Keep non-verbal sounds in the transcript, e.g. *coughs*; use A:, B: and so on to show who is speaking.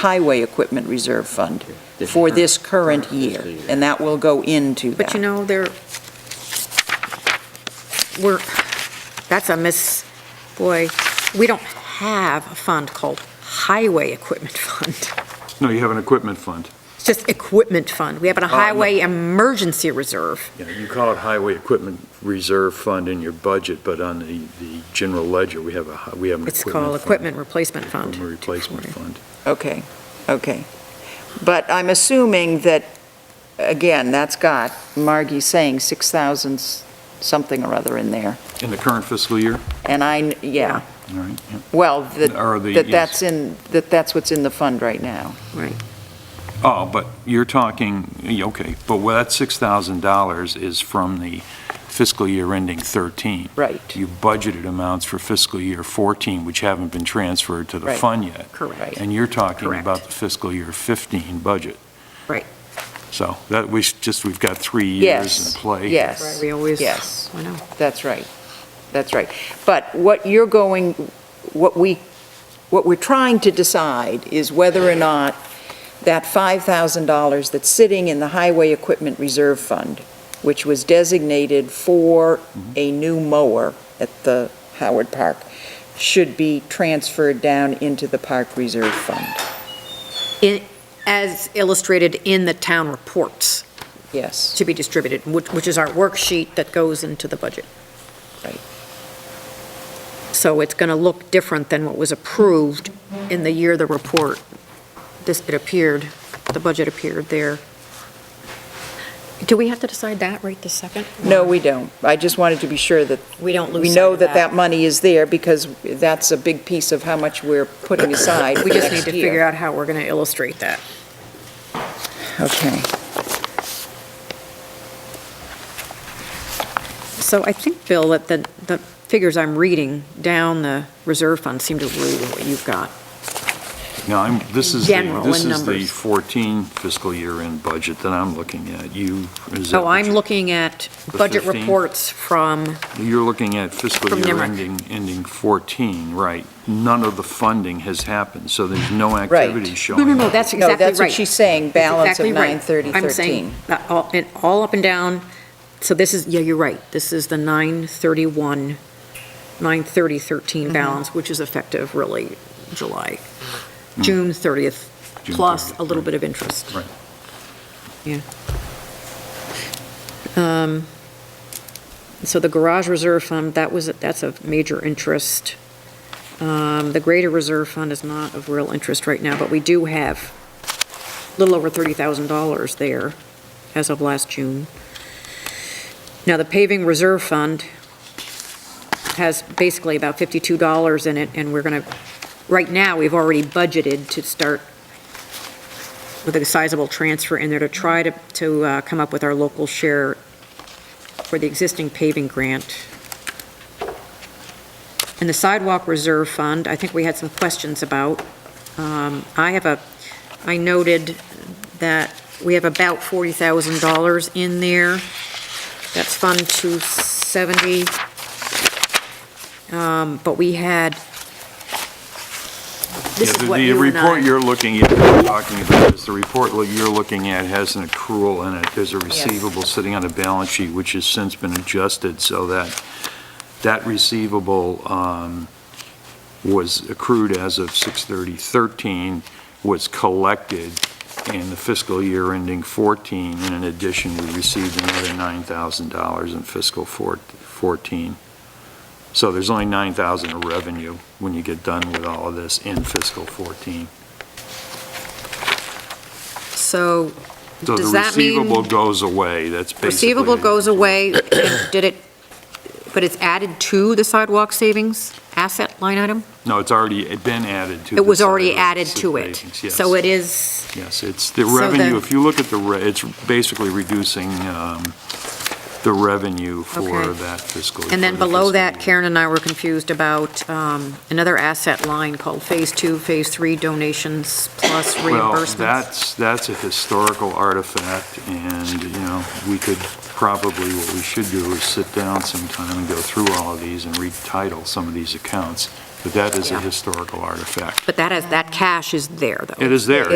A: Highway Equipment Reserve Fund for this current year, and that will go into that.
B: But you know, there, we're, that's a miss, boy, we don't have a fund called Highway Equipment Fund.
C: No, you have an equipment fund.
B: It's just Equipment Fund. We have
A: Oh,
B: a
C: no.
B: Highway Emergency Reserve.
C: Yeah, you call it Highway Equipment Reserve Fund in your budget, but on the, the general ledger, we have a, hi- we have an equipment
B: It's called
C: fund.
B: Equipment Replacement Fund.
C: Equipment Replacement Fund.
A: Okay, okay. But I'm assuming that, again, that's got, Margie saying 6,000 s- something or other in there.
C: In the current fiscal year,
A: And I, yeah,
C: all right, yeah.
A: well, that,
C: Or the-
A: that
C: yes.
A: that's in, that that's what's in the fund right now.
C: Oh, but you're talking, yeah, okay, but well, that $6,000 is from the fiscal year ending 13.
A: Right,
C: You budgeted amounts for fiscal year 14, which haven't been transferred to the
A: Right.
C: fund yet.
A: Right.
B: Correct.
C: And you're talking
B: Correct.
C: about the fiscal year 15 budget.
B: Right.
C: So that, we s- just, we've got three years
A: Yes,
C: in play.
A: yes.
B: Right, We always,
A: Yes.
B: I know.
A: that's right, that's right. But what you're going, what we, what we're trying to decide is whether or not that $5,000 that's sitting in the Highway Equipment Reserve Fund, which was designated for a new mower at the Howard Park, should be transferred down into the Park Reserve Fund.
B: As illustrated in the town reports
A: Yes,
B: to be distributed, which, which is our worksheet that goes into the budget.
A: Right.
B: So it's going to look different than what was approved in the year the report, this, it appeared, the budget appeared there. Do we have to decide that right this second?
A: no, we don't. I just wanted to be sure that
B: We don't lose
A: we
B: sight
A: know
B: of
A: that that money is there because that's a big piece of how much we're putting aside
B: *coughs* We just need to figure out how we're going to illustrate that.
A: Okay.
B: So I think, Bill, that the, the figures I'm reading down the reserve fund seem to rule what you've got.
C: Now, I'm, this is, the-
B: General
C: this
B: in
C: is the
B: numbers.
C: 14 fiscal year end budget that I'm looking at. You, is that
B: So
C: what
B: Oh, I'm
C: you-
B: looking at
C: The
B: budget
C: 15?
B: reports from,
C: You're looking at fiscal
B: From
C: year
B: NIMRIC.
C: ending, ending 14, right? None of the funding has happened, so there's no activity
B: no,
C: showing.
B: no, no,
C: up.
B: that's
A: No,
B: exactly right.
A: that's what she's saying, balance of
B: Exactly
A: 930
B: right. I'm saying, that all, and all up and down, so this is, yeah, you're right, this is the 931,
A: Mm-hmm.
B: 93013 balance, which is effective really July, June 30th,
C: Hmm. June
B: plus
C: 30th,
B: a little
C: right.
B: bit of interest.
C: Right.
B: Yeah. Um, So the garage reserve fund, that was, that's of major interest. Um, The greater reserve fund is not of real interest right now, but we do have a little over $30,000 there as of last June. Now, the paving reserve fund has basically about $52 in it, and we're going to, right now, we've already budgeted to start with a sizable transfer in there to try to, to uh, come up with our local share for the existing paving grant. And the sidewalk reserve fund, I think we had some questions about. Um, I have a, I noted that we have about $40,000 in there. That's Fund 270. Um, But we had, this
C: Yeah,
B: is
C: the-
B: what you and
C: The report
B: I,
C: you're looking at, you're talking about, is the report lo- you're looking at has an accrual in it. There's a receivable sitting on a balance sheet, which has since been adjusted so that that receivable um, was accrued as of 6/30/13, was collected in the fiscal year ending 14, and in addition, we received another $9,000 in fiscal four- 14. So there's only 9,000 of revenue when you get done with all of this in fiscal 14.
B: so
C: So
B: Does
C: the
B: that mean-
C: receivable goes away, that's basically.
B: Receivable
C: it.
B: goes away, and did it, *coughs* but it's added to the sidewalk savings asset line item?
C: No, it's already been added to.
B: It was
C: the
B: already
C: salary
B: added to it.
C: savings, Yes,
B: So it is,
C: yes, it's the
B: So
C: revenue,
B: the-
C: if you look at the, re- it's basically reducing um, the revenue for
B: Okay.
C: that fiscal.
B: and then
C: for the
B: below
C: fiscal
B: that,
C: year.
B: Karen and I were confused about um, another asset line called Phase Two, Phase Three donations plus reimbursements.
C: Well, that's, that's a historical artifact, and, you know, we could probably, what we should do is sit down sometime and go through all of these and retitle some of these accounts
B: But that is a
C: Yeah.
B: historical artifact.
C: But that has, that cash is there, though.
B: It is there.